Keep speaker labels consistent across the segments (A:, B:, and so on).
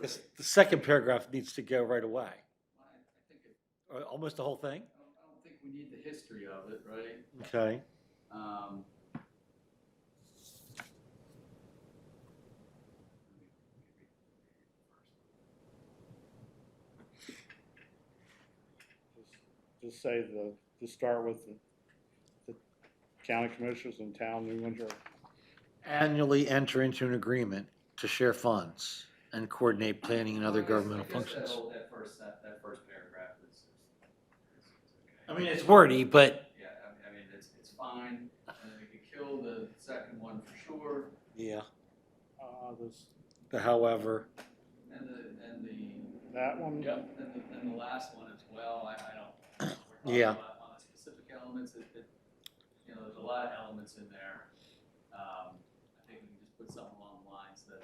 A: This, the second paragraph needs to go right away.
B: I I think, it-
A: Or Almost the whole thing?
B: I don't, I don't think we need the history of it, right?
A: Okay.
B: Um,
C: Just say the, just start with the, the county commissioners in town, New Windsor.
A: Annually enter into an agreement to share funds and coordinate planning and other
B: I guess- I
A: governmental
B: guess that
A: functions.
B: whole- That first, that, that first paragraph is, is, is is
A: I
B: okay.
A: mean, it's wordy, but.
B: Yeah, I, I mean, it's, it's fine, and we could kill the second one for sure,
A: Yeah.
C: Uh, this,
A: The however,
B: and the, and the,
C: that one,
B: yep, and the, and the last one as well, I, I don't. we're talking
A: Yeah.
B: about- On the specific elements, it, it, you know, there's a lot of elements in there. Um, I think we can just put something along the lines that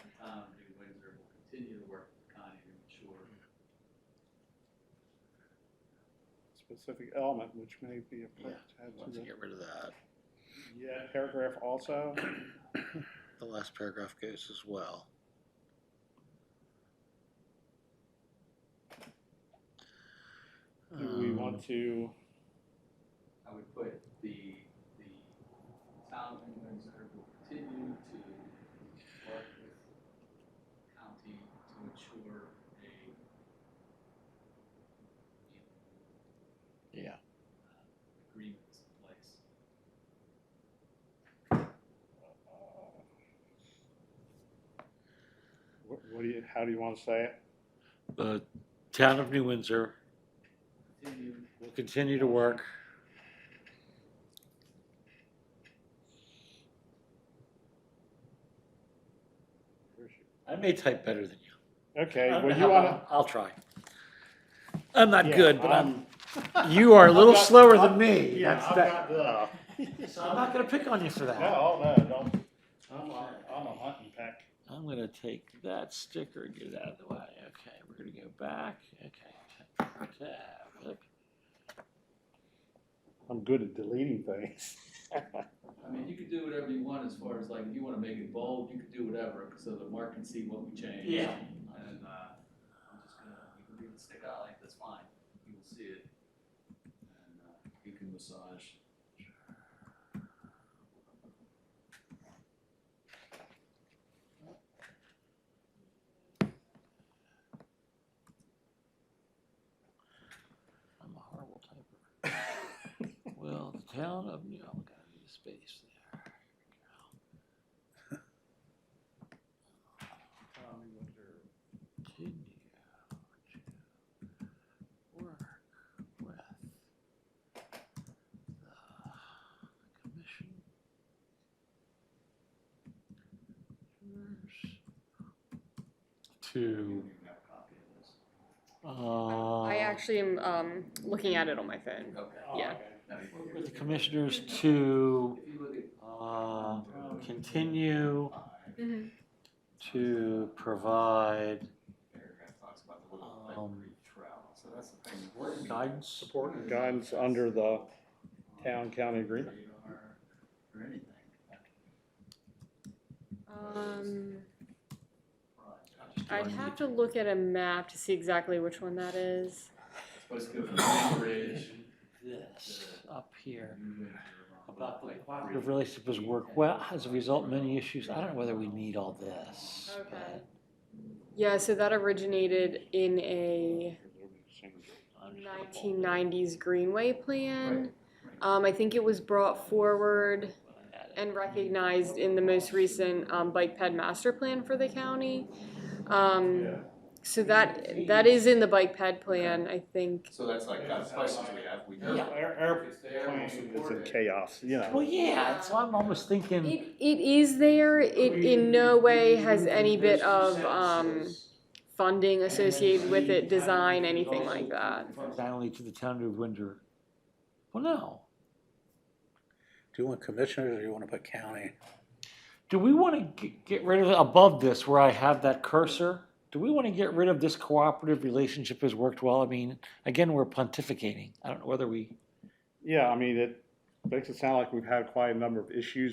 B: the town of New Windsor will continue to work with Connie to ensure
C: specific element, which may be a,
A: Yeah.
C: add
A: let's
C: to the-
A: get rid of that.
C: yeah, paragraph also.
A: The last paragraph goes as well.
C: Do we
A: Um.
C: want to,
B: I would put the, the town of New Windsor will continue to work with county to ensure a
A: Yeah.
B: agreement is in place.
C: uh, what, what do you, how do you wanna say it?
A: The town of New Windsor
B: Continue
A: will continue to work I may type better than you.
C: Okay,
A: I don't
C: well,
A: know
C: you
A: how
C: wanna.
A: well- I'll try. I'm not
C: yeah,
A: good, but I'm, you are a
C: I've
A: little
C: got-
A: slower than
C: I've-
A: me.
C: Yeah,
A: That's
C: I've
A: that-
C: got the.
A: So I'm not gonna pick on you for that.
C: No, no, don't, I'm, a- I'm a hunting pack.
A: I'm gonna take that sticker and get it out of the way. Okay, we're gonna go back. Okay. tab, look.
C: I'm good at deleting things.
B: I mean, you could do whatever you want as far as like, if you wanna make it bold, you could do whatever, so that Mark can see what we changed.
A: Yeah.
B: And, uh, I'm just gonna, you can leave it stick out like, that's fine, you will see it. And, uh, you can massage.
A: I'm a horrible typer. Well, the town of New, I'm gonna need a space there. Continue to work with the commission. uh,
B: You
A: To,
B: don't even have a copy of this.
A: uh.
D: I actually am um, looking at it on my phone.
B: Okay.
C: Oh.
D: Yeah.
B: Now you can-
A: With the commissioners to,
B: If you look at.
A: uh, continue
B: five,
D: Mm-hmm.
A: to provide
B: Paragraph talks about the little
A: Um,
B: library trowel, so that's the thing. Where we-
A: guidance.
C: Support and guidance under the town-county agreement.
B: Radar Or anything.
D: Um,
B: Right.
D: I'd have to look at a map to see exactly which one that is.
B: Supposed to go from Amber Ridge.
A: This up here
B: About
A: about the cooperative relationship has worked well. As a result, many issues, I don't know whether we need all this. but-
D: Yeah, so that originated in a 1990s Greenway plan. Um, I think it was brought forward and recognized in the most recent um, bike ped master plan for the county. Um, So that that is in the bike ped plan, I think.
B: So that's like, that's questions we have, we know.
A: Yeah.
C: Air, air
B: It's there, we support it.
C: chaos, you
A: Well, yeah, so I'm almost thinking,
D: It, it is there. It in no way has any bit of um, funding associated with it, design, anything like that.
A: only to the town of Windsor. Well, no.
E: Do you want commissioners or do you want to put county?
A: Do we want to get rid of, above this, where I have that cursor? Do we want to get rid of this cooperative relationship has worked well? I mean, again, we're pontificating. I don't know whether we.
C: Yeah, I mean, it makes it sound like we've had quite a number of issues